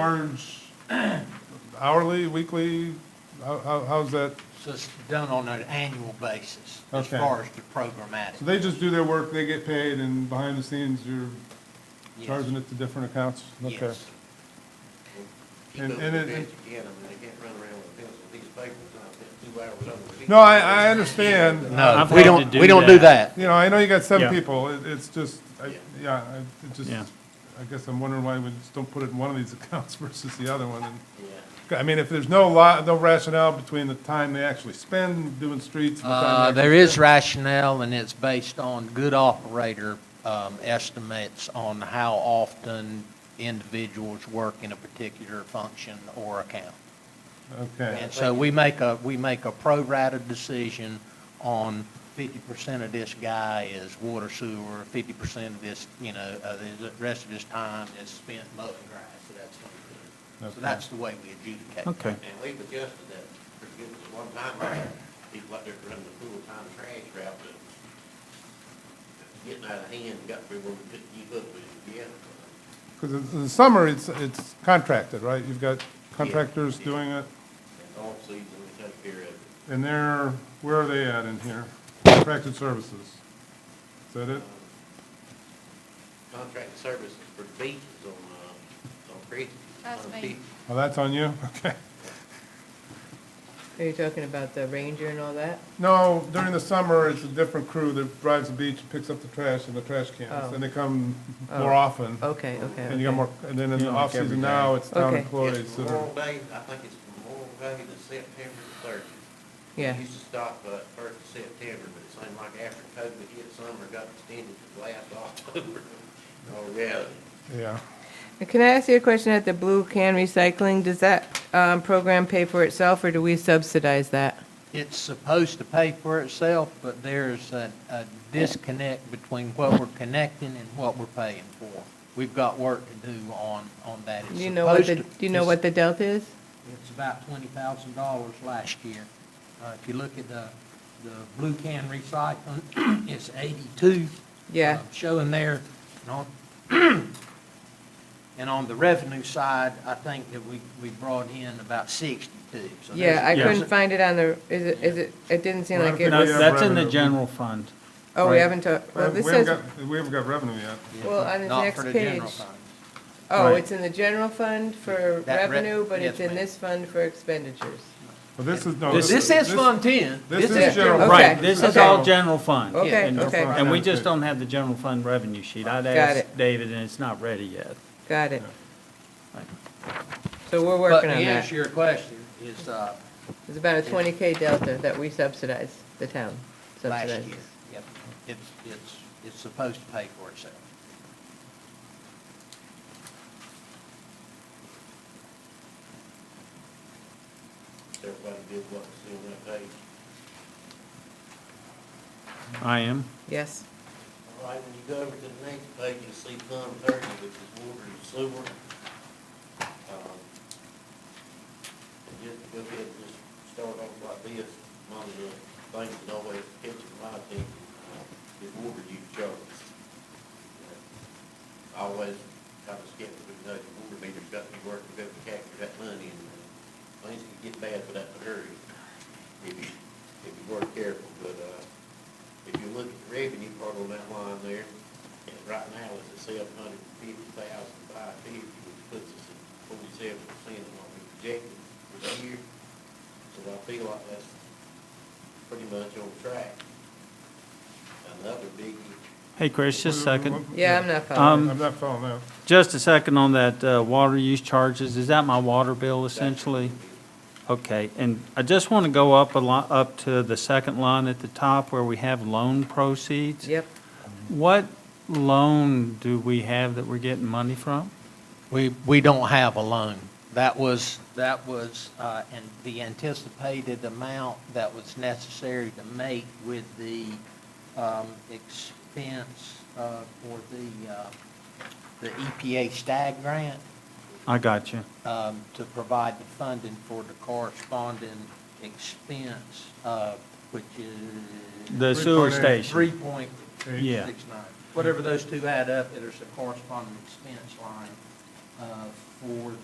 charge hourly, weekly? How, how, how's that? So it's done on an annual basis as Okay. far as the So programmatic. they just do their work, they get paid, and behind the scenes, you're Yes. charging it to different accounts? Okay. Yes. Keep And- up and with the it- bids again, I mean, they can't run around with bills, with these papers, uh, two hours over. the No, I, I understand. No, I've we had don't, to we do don't do that. You know, I know you got seven Yeah. people, It- it's just, I, yeah, I, it just, Yeah. I guess I'm wondering why we just don't put it in one of these accounts versus the other one, and. Yeah. I mean, if there's no lot, no rationale between the time they actually spend doing streets. and the time Uh, they there is rationale and it's based on good operator, um, estimates on how often individuals work in a particular function or account. actually- Okay, And so we make a, we make a pro-rata decision on fifty percent of this guy is water sewer, fifty percent of this, you know, uh, the rest of his time is spent mowing grass, so that's what we do. Okay. So that's the way we adjudicate. Okay. And we've adjusted that pretty good, because one time, uh, people out there running the full-time trash route, but getting out of hand, got to be where we couldn't keep up with it, yeah. because in the summer, it's, it's contracted, right? You've got contractors Yeah. doing it, And all season, we take care of it. and they're, where are they at in here? Contracted services. Is that it? Contract services for beaches on, uh, on Christmas. That's me. Oh, that's on you? Okay. Are you talking about the ranger and all that? No, during the summer, it's a different crew that drives the beach, and picks up the trash and the trash cans, Oh. and they come more often. Okay, okay. And you got okay. more, and then in the Yeah, like every off-season day. now, it's uh, town Okay. employees It's that are. Memorial Day, I think it's Memorial Day, the September the thirtieth. Yeah. Used to stop, uh, first of September, but it seemed like after COVID hit, summer got extended to last October. Oh, reality. Yeah. And Can I ask you a question at the Blue Can Recycling? Does that um, program pay for itself, or do we subsidize that? It's supposed to pay for itself, but there's a, a disconnect between what we're connecting and what we're paying for. We've got work to do on, on that. It's Do you know what the, do supposed to- you know what the delta is? It's about twenty thousand dollars last year. Uh, if you look at the, the blue can recycling, it's eighty-two. Yeah. uh, Showing there, and on, and on the revenue side, I think that we, we brought in about sixty-two. So there's- Yeah, I Yeah. couldn't find it on the, is it, is it, it didn't seem like Well, it No, we have was, that's in the revenue. general fund. oh, we right. haven't talked, well, We this haven't says, got, we haven't got revenue yet. well, on the Not next for the page. general fund. Oh, Right. it's in the general fund for That re- revenue, but yes, it's in ma'am. this fund for expenditures. Well, this is, no. This This is Fund Ten. this is Yeah. general. Okay. Right, this is okay. all general fund. Okay, And- okay. And we just don't have the general fund revenue sheet. I'd asked it. David, and it's not ready yet. Got it. Right. So we're working But on to that. answer your question, is, uh, It's about a 20K delta that we subsidize, the town last subsidizes. year. Yep. It's, it's, it's supposed to pay for itself. Everybody did what was in that page. I am. Yes. All right, when you go over to the next page, you see Fund Thirty, which is water and sewer. Um, and Just go ahead and just start off like this, one of the things that always catches my attention uh, is water use charges. I Always kind of skeptical, you know, the water meter's got to be working, got to capture that money, and uh, things can get bad without a hurry, if you, if you weren't careful, but, uh, if you look at the revenue part on that line there, and right now it's at seven hundred and fifty thousand five fifty, which puts us at forty-seven percent of what we projected for the year. So I feel like that's pretty much on track. Another biggie, Hey, Chris, just a second. Yeah, I'm not Um, following. I'm not following that. Just a second on that uh, water use charges. Is that my water bill essentially? Okay, and I just want to go up a lot, up to the second line at the top where we have loan proceeds. Yep. What loan do we have that we're getting money from? We, we don't have a loan. That was, that was, uh, and the anticipated amount that was necessary to make with the, um, expense, uh, for the, uh, the EPA STAG grant, I got you. um, to provide the funding for the corresponding expense, uh, which is. The sewer 3.8. station. Three point Yeah. six nine, whatever those two add up, there's a corresponding expense line, uh, for